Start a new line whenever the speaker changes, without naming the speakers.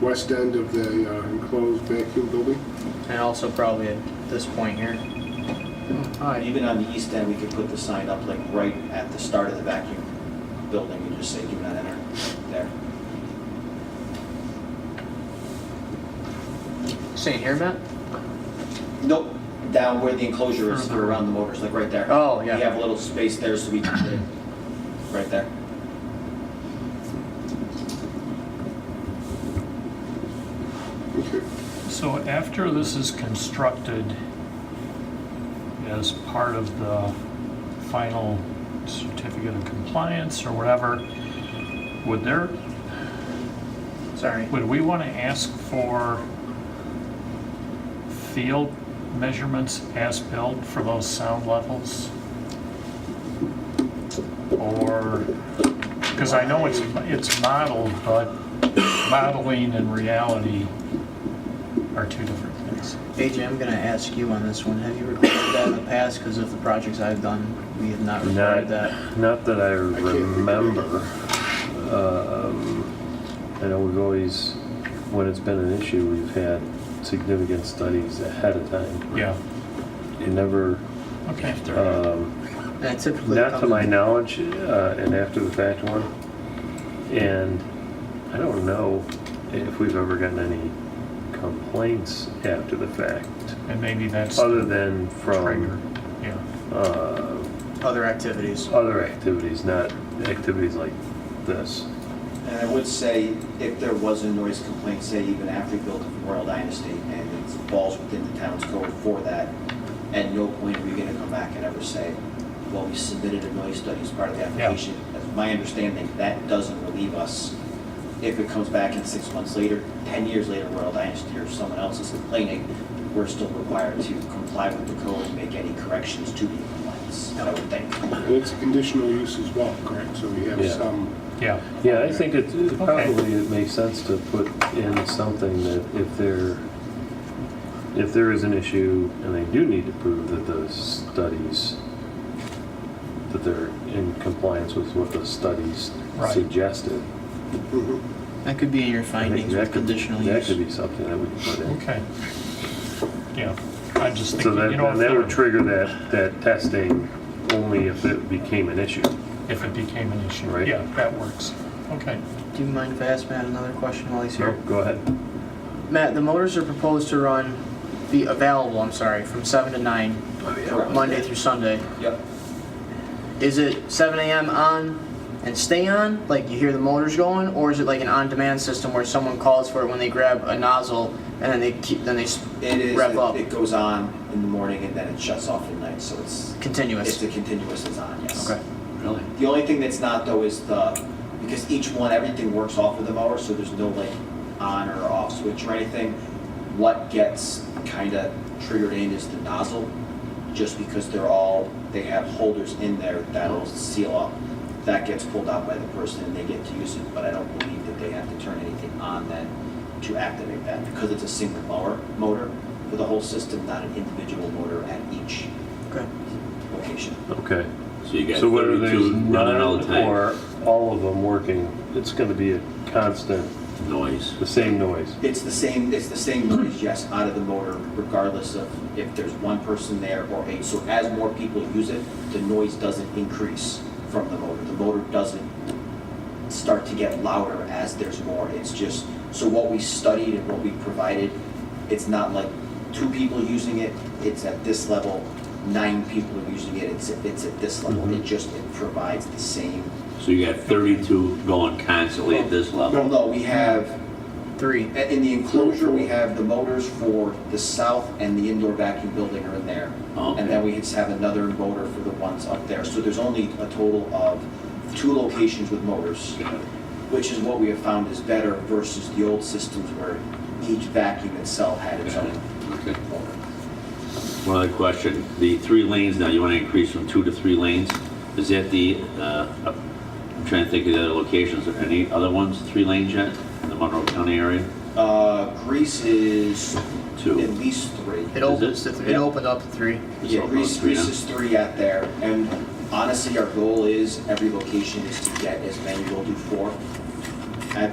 west end of the uh, enclosed vacuum building.
And also probably at this point here.
And
Hi.
Even on the east end, we could put the sign up like right at the start of the vacuum building and just say, do not enter there.
Saying here, Matt?
Nope, down where the enclosure is, or around the motors, like right there.
Oh, yeah.
We have a little space there, so we, right there.
Okay.
So after this is constructed, as part of the final certificate of compliance or whatever, would there,
Sorry.
would we want to ask for field measurements as-built for those sound levels? Or, because I know it's, it's modeled, but modeling and reality are two different things.
AJ, I'm gonna ask you on this one. Have you recorded that in the past? Because of the projects I've done, we have not recorded
Not,
that.
not that I
think of any.
remember. Um, I know we've always, when it's been an issue, we've had significant studies ahead of time.
Yeah,
It never,
okay.
um,
That typically
not
comes
to my
in-
knowledge, uh, an after the fact one. And I don't know if we've ever gotten any complaints after the fact,
And maybe that's
other than
trigger,
from,
yeah.
uh,
Other activities.
other activities, not activities like this.
And I would say, if there was a noise complaint, say even after we built the Royal Dynasty, and it falls within the town's code for that, at no point are we gonna come back and ever say, well, we submitted a noise study as part of the application. As my understanding, that doesn't relieve us. If it comes back in six months later, 10 years later, Royal Dynasty or someone else is complaining, we're still required to comply with the code and make any corrections to the compliance, I would think.
And it's a conditional use as well, correct? So we have
Yeah.
some,
Yeah,
Yeah, I think it it
Okay.
probably it makes sense to put in something that if there, if there is an issue and they do need to prove that those studies, that they're in compliance with what the studies
Right.
suggested.
Mhm.
That could be in your
I think
findings
that
with
could-
conditional
That could
use.
be something that we could put in.
okay. Yeah, I just think,
So that,
you know, if um,
and that would
there-
trigger that, that testing only if it became an issue.
if it became an issue,
Right.
yeah, that works. Okay,
Do you mind if I ask Matt another question while he's
So,
here?
go ahead.
Matt, the motors are proposed to run, be available, I'm sorry, from seven to nine, Monday through Sunday.
Yep.
Is it seven AM on and stay on, like you hear the motors going, or is it like an on-demand system where someone calls for it when they grab a nozzle and then they keep, then they s-
It is,
rev up
it it goes on in the morning and then it shuts off at night, so it's, it's
continuous?
a continuous is on, yes.
Okay.
Really?
The only thing that's not though is the, because each one, everything works off of the mower, so there's no like on or off switch or anything. What gets kind of triggered in is the nozzle, just because they're all, they have holders in there that'll seal up. That gets pulled out by the person and they get to use it, but I don't believe that they have to turn anything on then to activate that, because it's a single mower, motor for the whole system, not an individual motor at each
Okay.
location.
Okay.
So you got
So whether there's
32 running all
none
the time.
or all of them working, it's gonna be a constant,
noise.
the same noise.
It's the same, it's the same noise, yes, out of the motor, regardless of if there's one person there or eight. So as more people use it, the noise doesn't increase from the motor. The motor doesn't start to get louder as there's more. It's just, so what we studied and what we provided, it's not like two people using it, it's at this level, nine people are using it, it's, it's at this level. It just, it provides the same.
So you got 32 going constantly at this level.
Although we have
Three.
And In the enclosure, we have the motors for the south and the indoor vacuum building are in there.
Oh, Okay.
And then we just have another motor for the ones up there. So there's only a total of two locations with motors, which is what we have found is better versus the old systems where each vacuum itself had its own
Okay.
motor.
One other question, the three lanes now, you want to increase from two to three lanes? Is that the, uh, I'm trying to think of the other locations, are there any other ones, three lanes yet in the Monroe County area?
Uh, Greece is at
Two.
least three.
It opens to, th- it
Yeah.
opened up to three.
It's
Yeah,
all
Reese,
gone, yeah.
Reese is three out there, and honestly, our goal is every location is to get as many, we'll do four,